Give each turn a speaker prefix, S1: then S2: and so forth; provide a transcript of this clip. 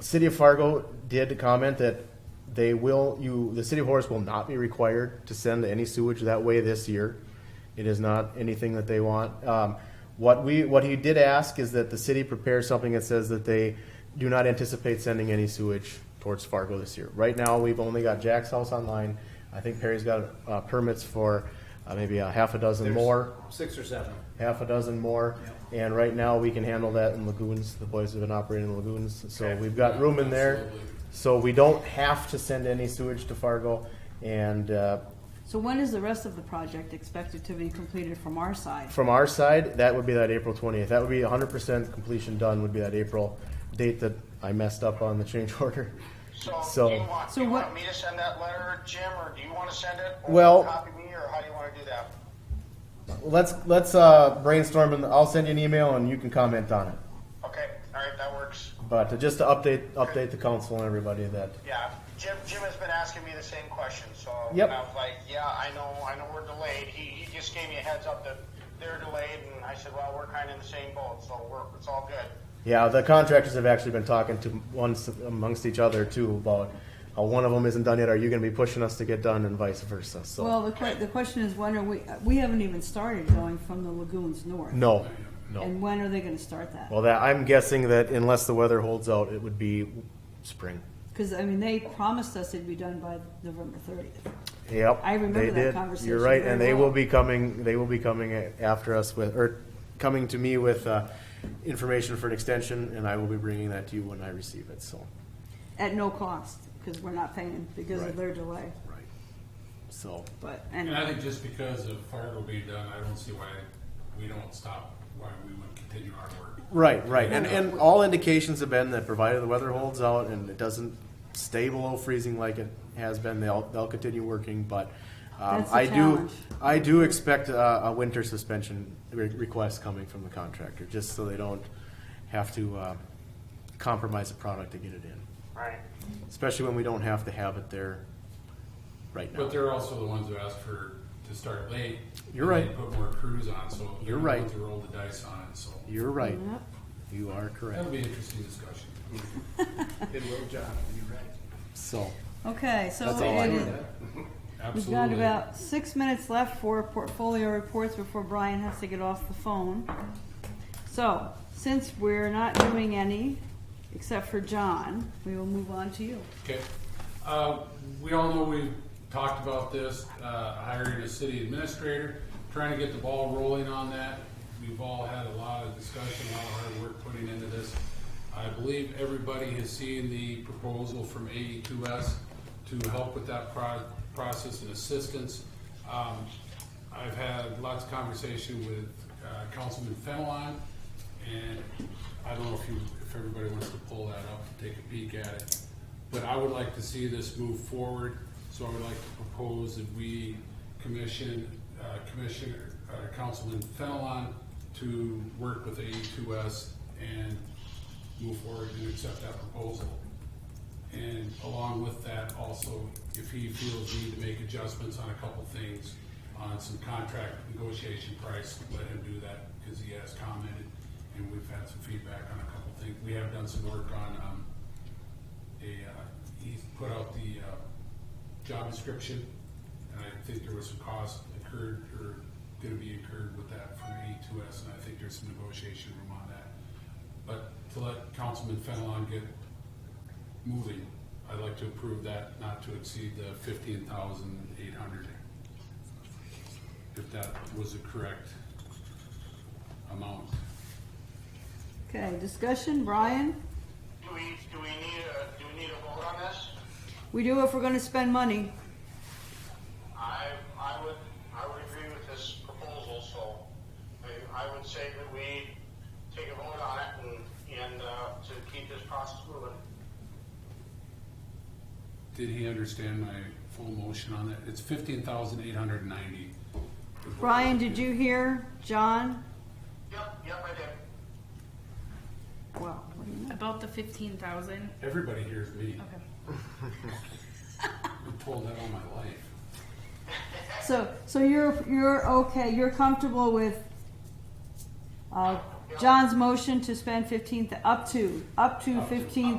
S1: City of Fargo did comment that they will, you, the city of Horace will not be required to send any sewage that way this year. It is not anything that they want. Um, what we, what he did ask is that the city prepare something that says that they do not anticipate sending any sewage towards Fargo this year. Right now, we've only got Jack's house online. I think Perry's got, uh, permits for, uh, maybe a half a dozen
S2: There's
S1: more
S2: Six or seven.
S1: half a dozen more. And right now, we can handle that in lagoons. The boys have been operating in lagoons, so we've got room in there. So we don't have to send any sewage to Fargo. And uh,
S3: So when is the rest of the project expected to be completed from our side?
S1: from our side, that would be that April twentieth. That would be hundred percent completion done, would be that April date that I messed up on the change order.
S4: So,
S1: So-
S4: do you want,
S3: So
S4: do you
S3: what-
S4: want me to send that letter, Jim, or do you want to send it? Or
S1: Well-
S4: Copy me, or how do you want to do that?
S1: Let's, let's uh, brainstorm and I'll send you an email and you can comment on it.
S4: Okay, all right, that works.
S1: But just to update, update the council and everybody that,
S4: Yeah, Jim, Jim has been asking me the same question, so.
S1: Yep.
S4: And I was like, yeah, I know, I know we're delayed. He, he just gave me a heads up that they're delayed, and I said, well, we're kind of in the same boat, so we're, it's all good.
S1: Yeah, the contractors have actually been talking to once amongst each other too about how one of them isn't done yet. Are you going to be pushing us to get done, and vice versa? So
S3: Well, the que- the question is, when are we, uh, we haven't even started going from the lagoons north.
S1: no,
S3: And
S1: no.
S3: when are they gonna start that?
S1: Well, that I'm guessing that unless the weather holds out, it would be spring.
S3: Cause I mean, they promised us it'd be done by November thirtieth.
S1: Yep,
S3: I remember
S1: they
S3: that
S1: did.
S3: conversation
S1: You're right, and
S3: very
S1: they
S3: well.
S1: will be coming. They will be coming after us with or coming to me with uh, information for an extension, and I will be bringing that to you when I receive it. So
S3: At no cost, cause we're not paying because of
S1: Right.
S3: their delay,
S1: right, so
S3: but
S5: And I
S3: anyway.
S5: think just because of Fargo being done, I don't see why we don't stop, why we would continue our work.
S1: Right, right, and, and all indications have been that provided the weather holds out and it doesn't stay below freezing like it has been, they'll, they'll continue working, but, um,
S3: That's the
S1: I do,
S3: challenge.
S1: I do expect a, a winter suspension re- request coming from the contractor, just so they don't have to, uh, compromise the product to get it in,
S4: All right.
S1: especially when we don't have to have it there right now.
S5: But they're also the ones who asked for, to start late.
S1: You're
S5: and
S1: right.
S5: they Put more crews on, so. they're
S1: You're
S5: the
S1: right.
S5: ones who rolled the dice on it, so.
S1: You're right,
S3: Yep.
S1: you are
S5: That'll
S1: correct,
S5: be an interesting discussion.
S2: Did a little job, you're right.
S1: so,
S3: Okay, so
S1: That's all I
S3: it
S1: need.
S3: is- We've
S5: Absolutely.
S3: got about six minutes left for portfolio reports before Brian has to get off the phone. So, since we're not doing any, except for John, we will move on to you.
S5: Okay. Uh, We all know we've talked about this, uh, hiring a city administrator, trying to get the ball rolling on that. We've all had a lot of discussion, a lot of hard work putting into this. I believe everybody has seen the proposal from AE2S to help with that pro- process and assistance. Um, I've had lots of conversation with uh, Councilman Fenelon, and I don't know if you, if everybody wants to pull that up, take a peek at it. But I would like to see this move forward, so I would like to propose that we commission, uh, Commissioner, uh, Councilman Fenelon to work with AE2S and move forward and accept that proposal. And along with that, also, if he feels need to make adjustments on a couple things, on some contract negotiation price, let him do that, because he has commented, and we've had some feedback on a couple things. We have done some work on, um, a, uh, he's put out the, uh, job description, and I think there was some cost incurred, or gonna be incurred with that from A to S, and I think there's some negotiation room on that. But to let Councilman Fenelon get moving, I'd like to approve that not to exceed the fifteen thousand eight hundred. If that was the correct amount.
S3: Okay, discussion, Brian?
S4: Do we, do we need a, do we need a vote on this?
S3: We do if we're gonna spend money.
S4: I, I would, I would agree with this proposal, so I, I would say that we take a vote on it and, and, uh, to keep this process moving.
S5: Did he understand my full motion on that? It's fifteen thousand eight hundred and ninety.
S3: Brian, did you hear? John?
S4: Yep, yep, I did.
S3: Well, what do you know?
S6: About the fifteen thousand.
S5: Everybody hears me.
S6: Okay.
S5: I've been told that all my life.
S3: so, so you're, you're okay, you're comfortable with, uh, John's motion to spend fifteen, th- up to, up to fifteen